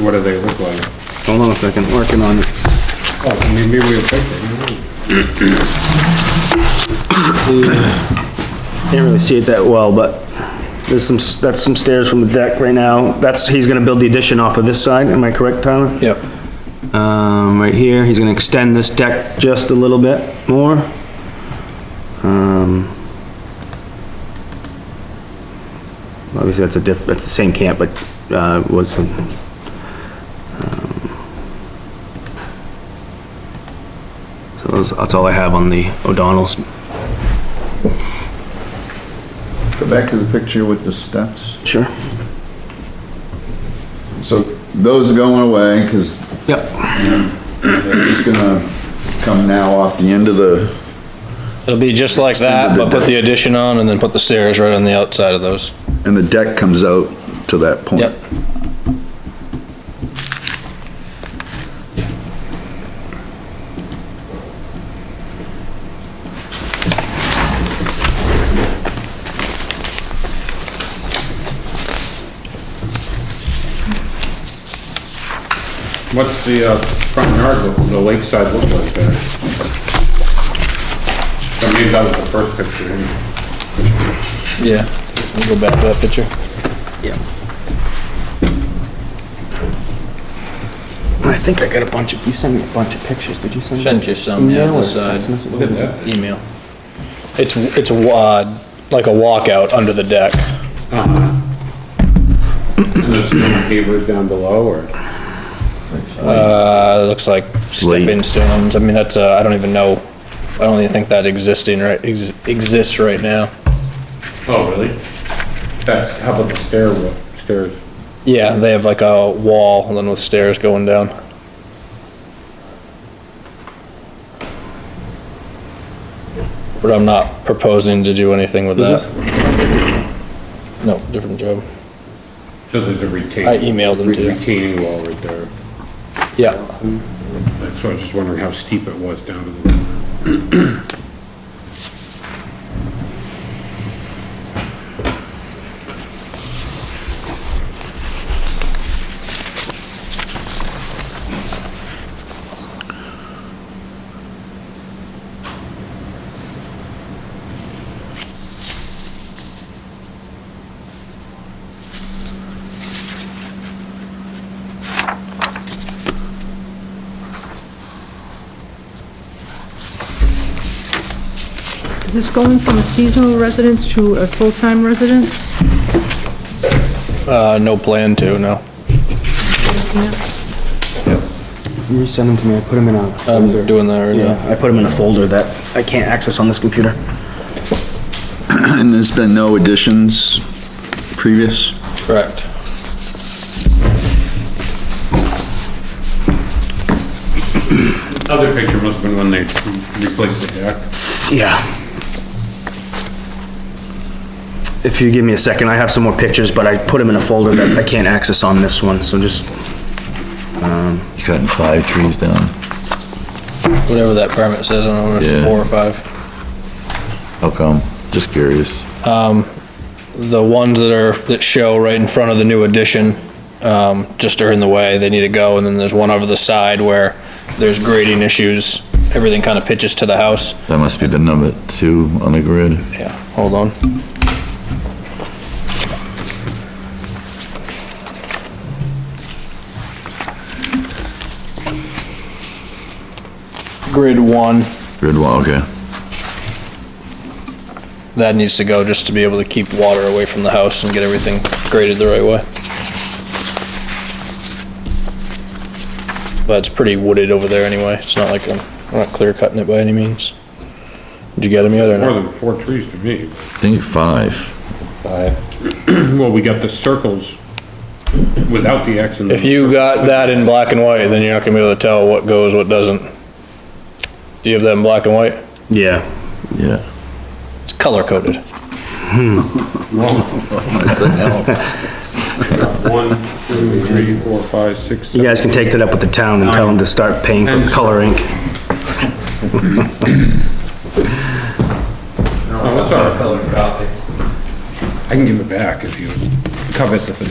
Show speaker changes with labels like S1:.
S1: What do they look like?
S2: Hold on a second, working on it.
S1: Oh, I mean, maybe we have pictures.
S2: Can't really see it that well, but there's some, that's some stairs from the deck right now. That's, he's gonna build the addition off of this side, am I correct, Tyler?
S3: Yep.
S2: Um, right here, he's gonna extend this deck just a little bit more. Um. Obviously, that's a diff, that's the same camp, but, uh, was some. um, So that's, that's all I have on the O'Donnell's.
S4: Go back to the picture with the steps.
S2: Sure.
S4: So those are going away because
S2: Yep,
S4: they're just gonna come now off the end of the,
S3: It'll be just like that, but put the addition on and then put the stairs right on the outside of those.
S4: and the deck comes out to that point.
S3: Yep.
S1: What's the, uh, front yard, look- the lakeside look like there? I mean, that was the first picture.
S3: Yeah. We'll Go back to that picture.
S2: I think I got a bunch of, you sent me a bunch of pictures, did you send? me?
S3: Sent you some, yeah,
S2: Email or
S3: this side.
S2: text message? What is it?
S3: Email. It's, it's wad, like a walkout under the deck.
S1: And there's no pavers down below, or?
S3: Uh, looks like stepping
S4: Slate.
S3: stones. I mean, that's, uh, I don't even know. I don't even think that existing, right, ex- exists right now.
S1: Oh, really? That's, how about the stairwell, stairs?
S3: Yeah, they have like a wall and then with stairs going down. But I'm not proposing to do anything with that. No, different job.
S1: So there's a retaining.
S3: I emailed them to you.
S1: Retaining wall right there.
S3: Yeah,
S1: That's why I was just wondering how steep it was down to the.
S5: Is this going from a seasonal residence to a full-time residence?
S3: uh, no plan to, no.
S5: Yeah.
S2: You sent them to me, I put them in a folder.
S3: I'm doing that right
S2: Yeah,
S3: now.
S2: I put them in a folder that I can't access on this computer.
S4: And there's been no additions previous?
S3: Correct.
S1: Other picture must have been when they replaced the deck.
S2: Yeah. If you give me a second, I have some more pictures, but I put them in a folder that I can't access on this one, so just,
S6: You cutting five trees down?
S3: Whatever that permit says, I don't know if it's
S6: Yeah.
S3: four or five.
S6: How come? Just curious.
S3: The ones that are, that show right in front of the new addition, um, just are in the way, they need to go, and then there's one over the side where there's grading issues, everything kind of pitches to the house.
S6: That must be the number two on the grid.
S3: Yeah, hold on. Grid one,
S6: Grid one, okay.
S3: that needs to go just to be able to keep water away from the house and get everything graded the right way. But it's pretty wooded over there anyway, it's not like I'm, I'm not clear cutting it by any means. Did you get him yet or
S1: More
S3: not?
S1: than four trees to me.
S6: I think five.
S1: Well, we got the circles without the X in them.
S3: If you uh, got that in black and white, then you're not gonna be able to tell what goes, what doesn't. Do you have that in black and white?
S2: yeah.
S6: Yeah.
S3: It's color coded.
S1: One, two, three, four, five, six,
S2: You
S1: seven.
S2: guys can take that up with the town and tell them to start paying for color ink.
S1: Oh, it's all right. I can give it back if you covet the thing.